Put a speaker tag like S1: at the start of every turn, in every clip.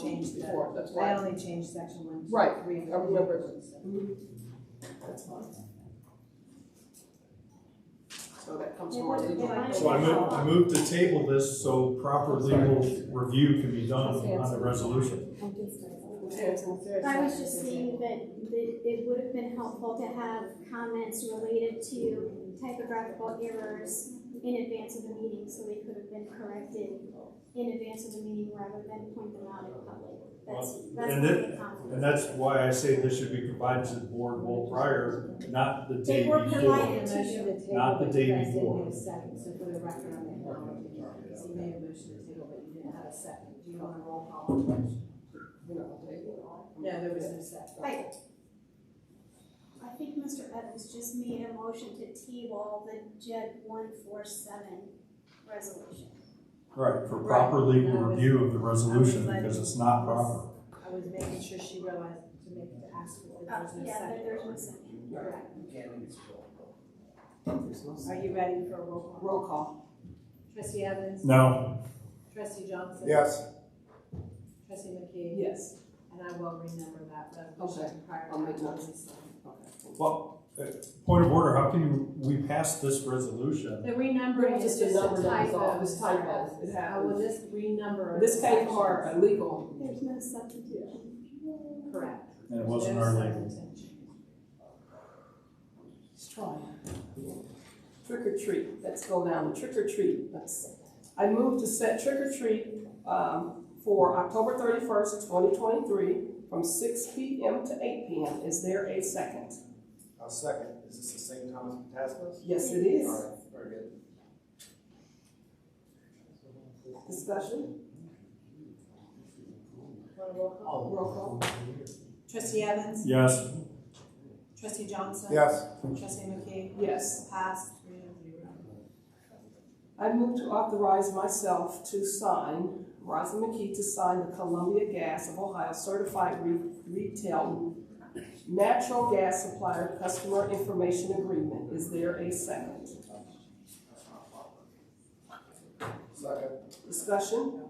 S1: changed that.
S2: before, that's
S1: I
S2: why.
S1: only changed section one, two, three.
S2: Right, I remember it. That's fine. So that comes from our legal.
S3: So I move, I move to table this so proper legal review can be done on the resolution.
S4: I was just saying that, that it would have been helpful to have comments related to typographical errors in advance of the meeting, so they could have been corrected in advance of the meeting rather than point them out in public. That's, that's
S3: And
S4: my
S3: that-
S4: comment.
S3: And that's why I say this should be provided to the board well prior, not the day
S4: They were
S3: before.
S4: provided to you.
S3: Not the day before.
S1: Second, so for the record, I'm acknowledging that. So you made a motion to table, but you didn't have a second. Do you want a roll call on the motion?
S2: You know, they-
S1: No, there was no second.
S4: I, I think Mr. Evans just made a motion to table the JED one four seven resolution.
S3: Right, for proper legal review of the resolution, because it's not proper.
S1: I was making sure she realized to make, to ask if there
S4: Uh,
S1: was no
S4: yeah, but there's no
S1: second.
S4: second.
S1: Correct.
S2: There's no
S1: Are
S2: second.
S1: you ready for a roll call?
S2: Roll call.
S1: Trustee Evans?
S3: No.
S1: Trustee Johnson?
S5: Yes,
S1: Trustee McKee?
S2: Yes,
S1: And I will remember that resolution prior to.
S2: I'll make
S1: that.
S2: okay.
S3: Well, uh, point of order, how can you, we pass this resolution?
S1: The renumbering is
S2: Just
S1: just
S2: a number
S1: a
S2: that was
S1: typo.
S2: off, this typo, it
S1: I
S6: uh,
S1: will
S2: happens.
S1: just renumber.
S2: This came from our
S1: sections.
S2: uh, legal,
S4: There's no substitution.
S1: Correct.
S3: And it wasn't our label.
S2: let's try it. Trick or treat, let's go down, to trick or treat, let's, I move to set trick or treat, um, for October thirty-first, twenty twenty-three, from six P M to eight P M, is there a second?
S5: I'll second. Is this the same time as Pataskos?
S2: Yes, it is,
S5: All right, very good.
S2: discussion, Oh, roll call.
S1: Trustee Evans?
S3: Yes,
S1: Trustee Johnson?
S5: Yes,
S1: Trustee McKee?
S2: Yes.
S1: Passed three to zero.
S2: I move to authorize myself to sign, Rosa McKee to sign the Columbia Gas of Ohio Certified Re- Retail Natural Gas Supplier Customer Information Agreement. Is there a second?
S5: second.
S2: Discussion?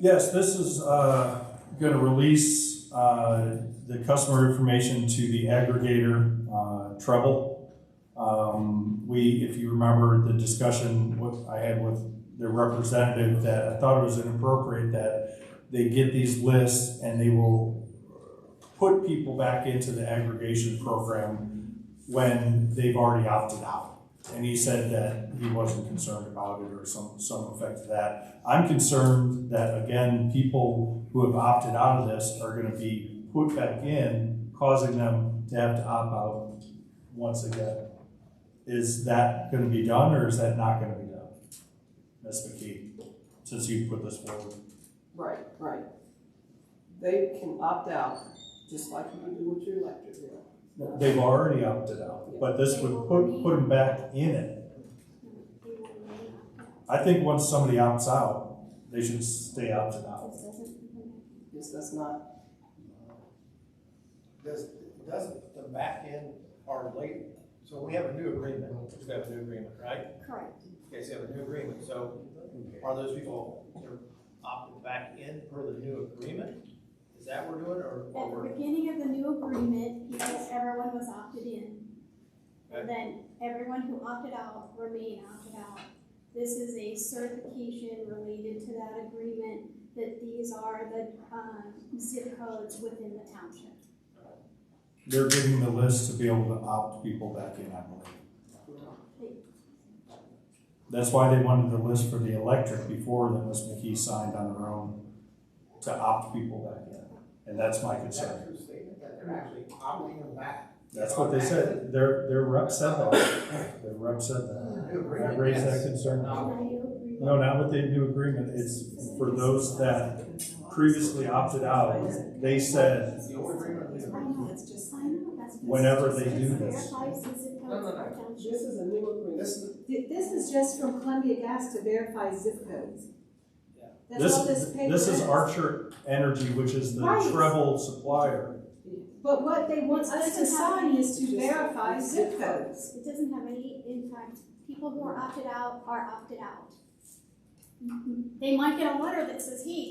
S3: yes, this is, uh, gonna release, uh, the customer information to the aggregator, uh, Treble. Um, we, if you remember the discussion with, I had with their representative, that I thought it was inappropriate that they get these lists and they will put people back into the aggregation program when they've already opted out. And he said that he wasn't concerned about it or some, some effect of that. I'm concerned that, again, people who have opted out of this are gonna be put back in, causing them to have to opt out once again. Is that gonna be done, or is that not gonna be done? Ms. McKee, since you put this forward.
S2: Right, right. They can opt out, just like you do with your electric bill.
S3: They've already opted out, but this would put, put them back in it.
S4: They will remain on.
S3: I think once somebody opts out, they should stay opted out.
S4: This doesn't-
S2: Yes, that's not,
S5: Does, doesn't the back end or late, so we have a new agreement, we have a new agreement, right?
S4: Correct.
S5: Okay, so we have a new agreement, so are those people, they're opting back in per the new agreement? Is that what we're doing, or?
S4: At
S5: or
S4: the
S5: we're-
S4: beginning of the new agreement, because everyone was opted in,
S5: Okay.
S4: then everyone who opted out remained opted out. This is a certification related to that agreement that these are the, um, zip codes within the township.
S3: They're giving the list to be able to opt people back in, I believe. That's why they wanted the list for the electric before that Ms. McKee signed on her own to opt people back in. And that's my
S7: Is that
S3: concern.
S7: a true statement, that they're actually opting them back?
S3: That's what they said. Their, their rep said that. Their rep said that. Can I raise that concern?
S4: And I agree.
S3: No, not with the new agreement. It's for those that previously opted out. They said,
S7: The old agreement, the
S4: I
S7: agreement.
S4: know, it's just, I know, that's.
S3: Whenever they do
S4: Just
S3: this.
S4: verifies the zip
S7: No, no,
S4: codes of the township.
S2: this is a new agreement.
S7: This is,
S6: Th- This is just from Columbia Gas to verify zip codes. That's
S3: this,
S6: what this paper
S3: this is Archer Energy, which is the
S6: Right.
S3: treble supplier.
S6: But what they want us to
S4: Doesn't have
S6: sign is to
S2: any-
S6: verify
S2: Just-
S6: zip codes.
S4: It doesn't have any impact. People who are opted out are opted out. They might get a letter that says, hey,